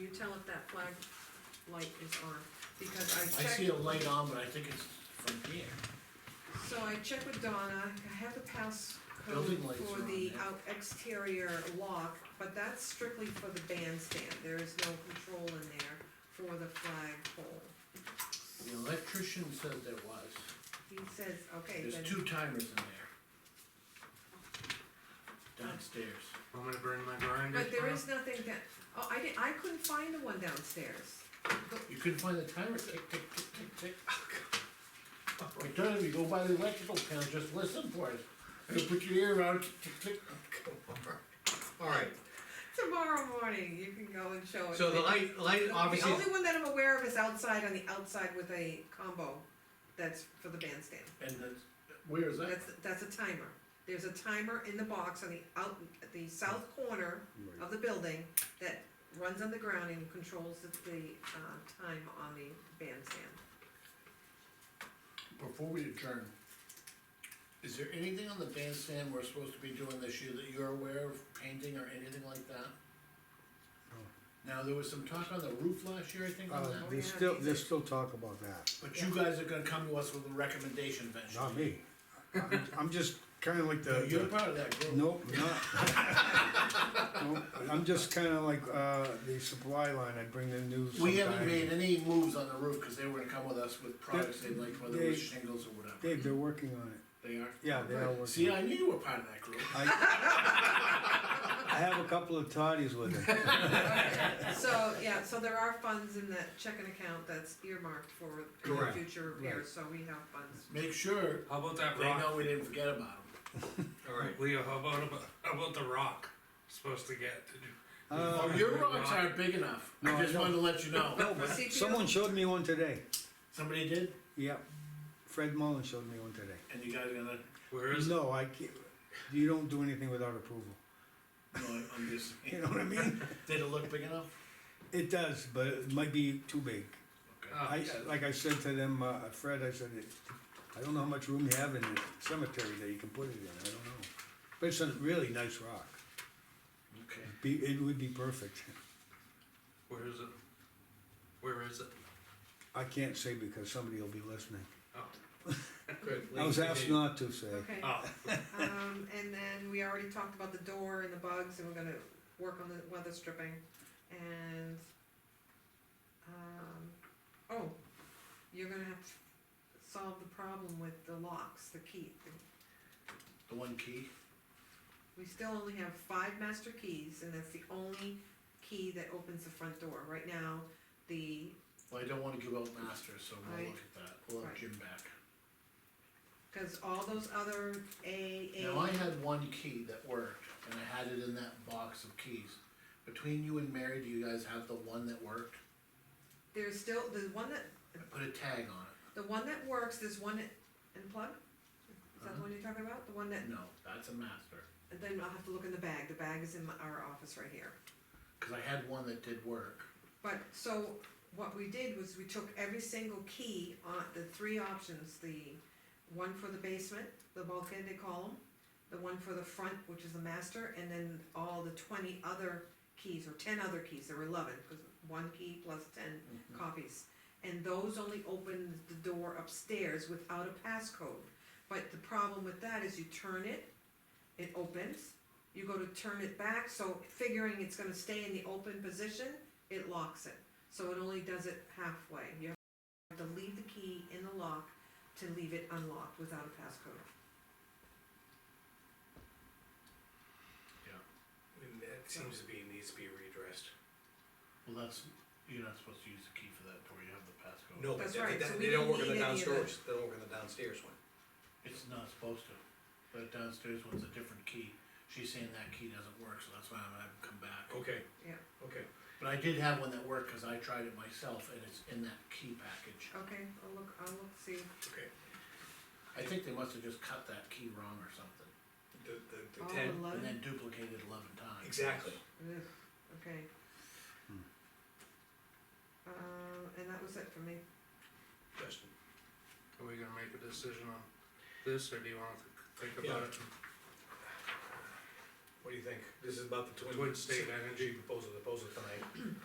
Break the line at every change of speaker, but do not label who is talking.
you tell if that flag light is on? Because I
I
checked.
see a light on, but I think it's from here.
So I checked with Donna, I have the passcode
Building lights
for
are on
the
there.
out exterior lock, but that's strictly for the bandstand, there is no control in there for the flagpole.
The electrician said there was.
He says, okay, then,
There's two timers in there. Downstairs.
I'm gonna burn my grinder.
but there is nothing that, oh, I didn't, I couldn't find the one downstairs.
You couldn't find the timer, tick, tick, tick, tick, tick. I told him, you go by the electrical panel, just listen for it. You put your ear around, tick, tick, tick.
Alright,
Tomorrow morning, you can go and show it.
so the light, light obviously,
The only one that I'm aware of is outside, on the outside with a combo, that's for the bandstand.
And that's, where is that?
That's, that's a timer. There's a timer in the box on the out, at the south corner of the building that runs on the ground and controls the, the, uh, time on the bandstand.
Before we adjourn, is there anything on the bandstand we're supposed to be doing this year that you're aware of, painting or anything like that? Now, there was some talk on the roof last year, I think, on
Uh,
that,
there's still, there's still talk about that,
but you guys are gonna come to us with a recommendation eventually.
not me. I'm- I'm just kinda like the.
No, You're
the-
part of that group.
Nope, not. Nope, I'm just kinda like, uh, the supply line, I bring the news.
We haven't
sometime.
made any moves on the roof, cause they were gonna come with us with products they like, whether it was
They-
shingles or whatever.
Dave, they're working on it,
They are?
yeah, they are working. on
See,
it.
I knew you were part of that group.
I I have a couple of toddies with them,
So, yeah, so there are funds in that checking account that's earmarked for
Correct.
future
Right.
repairs, so we have funds.
Make sure
How about that
they know
rock?
we didn't forget about them.
alright,
Leo, how about, about- how about the rock supposed to get to do?
Oh, your rocks aren't big enough,
Uh, No,
I
I
just wanted to let you know.
See, if you-
someone showed me one today,
Somebody did,
yep, Fred Mullen showed me one today.
and you guys are gonna,
Where is it?
No, I can't, you don't do anything without approval,
no, I'm just,
you know what I mean?
did it look big enough?
It does, but it might be too big.
Oh,
I, like I said to them, uh, Fred, I said, I don't know how much room you have in the cemetery that you can put it in, I don't know. But it's a really nice rock,
Okay.
be, it would be perfect.
Where is it? Where is it?
I can't say because somebody will be listening.
Oh,
good.
I was asked not to say.
Okay,
oh,
um, and then we already talked about the door and the bugs, and we're gonna work on the weather stripping, and, um, oh, you're gonna have to solve the problem with the locks, the key.
The one key,
We still only have five master keys, and that's the only key that opens the front door. Right now, the,
well, I don't wanna give out masters, so we'll
Right.
look at that, we'll have
Right.
Jim back.
cause all those other A, A.
Now, I had one key that worked, and I had it in that box of keys. Between you and Mary, do you guys have the one that worked?
There's still, the one that,
I put a tag on
the one that works, there's one that, and plug? Is that the one you're talking about? The one that
it. No, that's a master,
And Then I'll have to look in the bag, the bag is in my- our office right here.
cause I had one that did work.
But, so, what we did was we took every single key on the three options, the one for the basement, the bulkhead they call them, the one for the front, which is the master, and then all the twenty other keys, or ten other keys, there were eleven, because one key plus ten copies. And those only open the door upstairs without a passcode. But the problem with that is you turn it, it opens, you go to turn it back, so figuring it's gonna stay in the open position, it locks it. So it only does it halfway. You have to leave the key in the lock to leave it unlocked without a passcode.
And Mm, That seems to be, needs to be redressed.
Well, that's, you're not supposed to use the key for that door, you have the passcode.
No, but
That's
they,
right, so
they-
we
they don't
didn't
work on the
need any of
downstairs, they don't work on the downstairs one.
It's not supposed to. That downstairs one's a different key. She's saying that key doesn't work, so that's why I'm gonna have him come back.
Okay.
Yeah.
Okay.
But I did have one that worked, cause I tried it myself, and it's in that key package.
Okay, I'll look, I'll look, see.
Okay.
I think they must have just cut that key wrong or something,
The, the,
All
the ten,
and
eleven?
then duplicated eleven times.
exactly.
Ugh, okay.
Hmm.
Um, and that was it for me.
Justin.
are we gonna make a decision on this, or do you wanna th- think about it?
What do you think? This is about the twin.
Twin state energy.
Proposal, proposal tonight.